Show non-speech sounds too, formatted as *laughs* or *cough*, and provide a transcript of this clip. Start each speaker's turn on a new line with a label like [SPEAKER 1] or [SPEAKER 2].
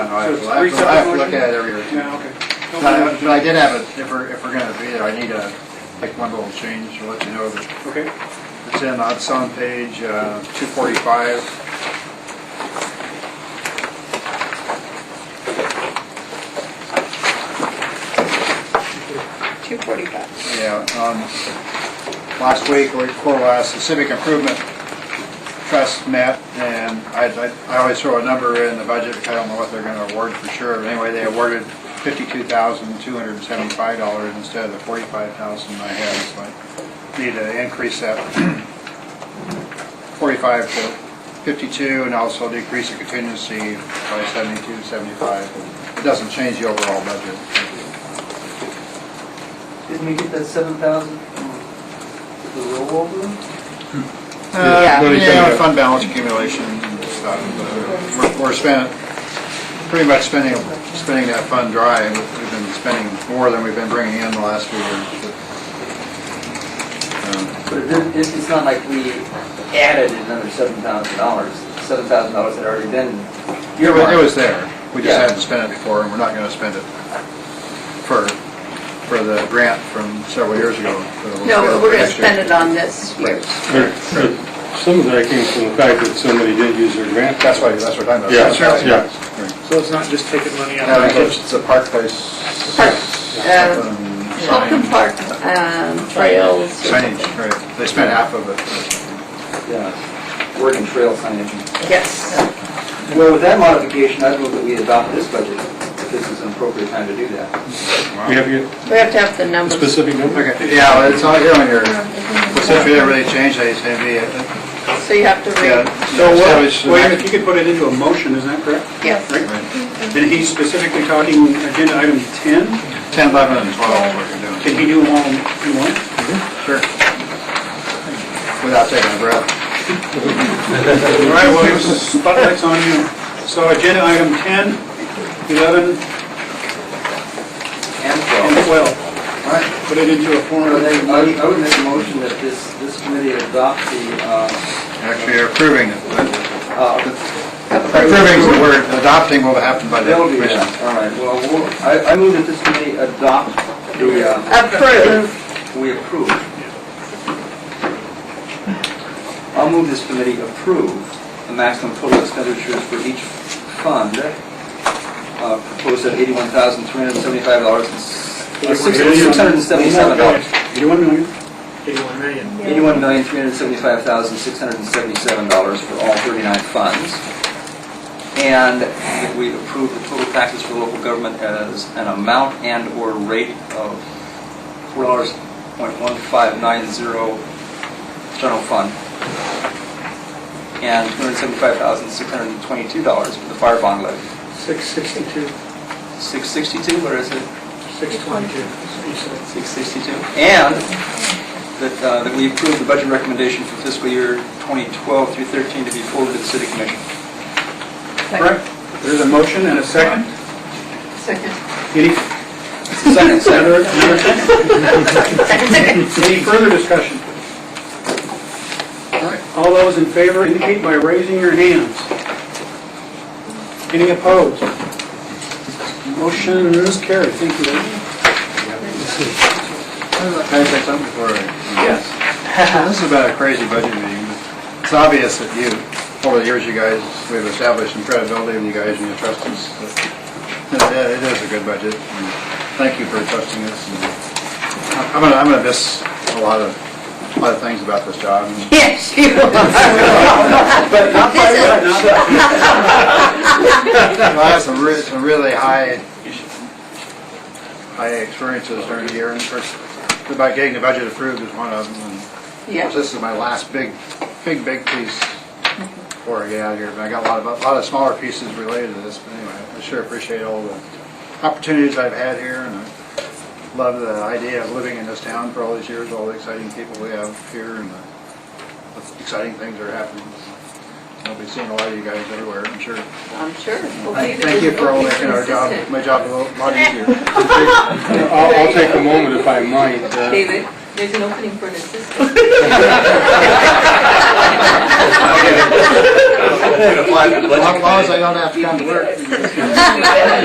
[SPEAKER 1] I know, I have to
[SPEAKER 2] So it's three
[SPEAKER 1] I have to look
[SPEAKER 2] separate
[SPEAKER 1] at it every year.
[SPEAKER 2] Yeah, okay.
[SPEAKER 1] But I- but I did have a, if we're, if we're gonna be there, I need to make one little change to let you know that
[SPEAKER 2] Okay,
[SPEAKER 1] It's in, it's on page uh, 245.
[SPEAKER 3] Two forty-five.
[SPEAKER 1] Yeah, um, last week, or before last, the Civic Improvement Trust met, and I, I- I always throw a number in the budget, I don't know what they're gonna award for sure, but anyway, they awarded $52,275 instead of the $45,000 I had, so I need to increase that 45 to 52, and also decrease the contingency by 72, 75. It doesn't change the overall budget.
[SPEAKER 4] Didn't we get that seven thousand from the rollover?
[SPEAKER 1] Uh,
[SPEAKER 3] Yeah.
[SPEAKER 1] Yeah, fund balance accumulation and stuff. uh, We're we're spending, pretty much spending, spending that fund dry. and We've been spending more than we've been bringing in the last few years. Um,
[SPEAKER 4] But it didn't, it's, it's not like we added another seven thousand dollars, seven thousand dollars had already been
[SPEAKER 1] It wa- it
[SPEAKER 4] earmarked.
[SPEAKER 1] was there. We just
[SPEAKER 4] Yeah.
[SPEAKER 1] hadn't spent it before, and we're not going to spend it for, for the grant from several years ago.
[SPEAKER 3] No, but we're gonna spend it on this year's.
[SPEAKER 5] But- but Some of that came from the fact that somebody did use their grant.
[SPEAKER 1] That's why, that's what I'm talking
[SPEAKER 5] Yeah,
[SPEAKER 1] about.
[SPEAKER 5] yeah.
[SPEAKER 2] so it's not just taking money out
[SPEAKER 1] Yeah,
[SPEAKER 2] of the
[SPEAKER 1] it's it's a park place.
[SPEAKER 3] Park, uh,
[SPEAKER 1] something,
[SPEAKER 3] Holcomb
[SPEAKER 1] sign-
[SPEAKER 3] Park, um, trails.
[SPEAKER 1] Signage, right. They spent half of it.
[SPEAKER 4] Yeah, working uh, trail signage.
[SPEAKER 3] Yes.
[SPEAKER 4] Well, with that modification, I'd move that we adopt this budget, if this is an appropriate time to do that.
[SPEAKER 5] We have you-
[SPEAKER 3] We have to have the
[SPEAKER 5] a
[SPEAKER 3] numbers.
[SPEAKER 5] specific number?
[SPEAKER 1] Okay, yeah, well, it's all here on your, well, since we didn't really change that, it's gonna be, uh,
[SPEAKER 3] So you have to
[SPEAKER 1] yeah.
[SPEAKER 3] read,
[SPEAKER 2] So uh,
[SPEAKER 1] establish-
[SPEAKER 2] what, Wayne, if you could put it into a motion, is that correct?
[SPEAKER 3] yes.
[SPEAKER 2] Right. And he's specifically talking agenda item 10,
[SPEAKER 1] Ten, eleven, and twelve is what you're doing.
[SPEAKER 2] can he do them all in one?
[SPEAKER 1] Sure. Without taking a breath.
[SPEAKER 2] All right, well, here's the spotlight's on you. So agenda item 10, 11,
[SPEAKER 4] And
[SPEAKER 2] and
[SPEAKER 4] twelve.
[SPEAKER 2] 12,
[SPEAKER 4] All right.
[SPEAKER 2] put it into a form
[SPEAKER 4] I
[SPEAKER 2] of
[SPEAKER 4] would make-
[SPEAKER 2] motion.
[SPEAKER 4] I would make a motion that this, this committee adopt the, uh,
[SPEAKER 1] Actually, you're approving, it.
[SPEAKER 4] uh,
[SPEAKER 1] approving, the word adopting will happen by the
[SPEAKER 4] That'll be,
[SPEAKER 1] commission.
[SPEAKER 4] all right, well, we'll- I, I move that this committee adopt the, uh,
[SPEAKER 3] Approve.
[SPEAKER 4] we approve. I'll move this committee approve the maximum total expenditures for each fund, uh, proposed at eighty-one thousand, three hundred and seventy-five dollars and six hundred and seventy-seven dollars.
[SPEAKER 2] 81 million.
[SPEAKER 4] Eighty-one million, three hundred and seventy-five thousand, six hundred and seventy-seven dollars for all thirty-nine funds. And that we approve the total taxes for local government as an amount and/or rate of four dollars point one five nine zero general fund. And two hundred and seventy-five thousand, six hundred and twenty-two dollars for the fire bond levy.
[SPEAKER 2] 662,
[SPEAKER 4] Six sixty-two, what is it?
[SPEAKER 2] 622, you said.
[SPEAKER 4] 662. And that, uh, that we approve the budget recommendation for fiscal year 2012 through 13 to be forwarded to the city commission.
[SPEAKER 2] Correct. There's a motion and a second.
[SPEAKER 3] Second.
[SPEAKER 2] Any,
[SPEAKER 4] Second,
[SPEAKER 2] another,
[SPEAKER 4] second.
[SPEAKER 2] another second? Any further discussion? All right. All those in favor indicate by raising your hands. Any opposed? Motion is carried. Thank you.
[SPEAKER 1] Can I say something before I? This is about a crazy budget meeting, but it's obvious that you, over the years, you guys, we've established some credibility with you guys and you trust us. But It it is a good budget, and thank you for trusting us. and I'm gonna, I'm gonna miss a lot of, a lot of things about this job. and
[SPEAKER 3] *laughs* Yes, you are.
[SPEAKER 2] But not by what, not by-
[SPEAKER 1] I had some really, some really high, high experiences during the year, and of course, about getting the budget approved is one of them, and
[SPEAKER 3] Yeah.
[SPEAKER 1] This is my last big, big, big piece before I get out of here, but I got a lot of, a lot of smaller pieces related to this, but anyway, I sure appreciate all the opportunities I've had here, and I love the idea of living in this town for all these years, all the exciting people we have here, and the exciting things that are happening. I'll be seeing a lot of you guys everywhere, I'm sure.
[SPEAKER 3] I'm sure. We'll be-
[SPEAKER 1] Thank you for all
[SPEAKER 3] we'll be
[SPEAKER 1] making our job,
[SPEAKER 3] consistent.
[SPEAKER 1] my job a little- lot easier.
[SPEAKER 5] I'll, I'll take a moment if I might. uh,
[SPEAKER 3] David, there's an
[SPEAKER 1] *laughs*
[SPEAKER 3] opening *laughs* for an assistant.
[SPEAKER 4] It applies to budget
[SPEAKER 1] As long as I
[SPEAKER 4] committee.
[SPEAKER 1] don't have to come to work.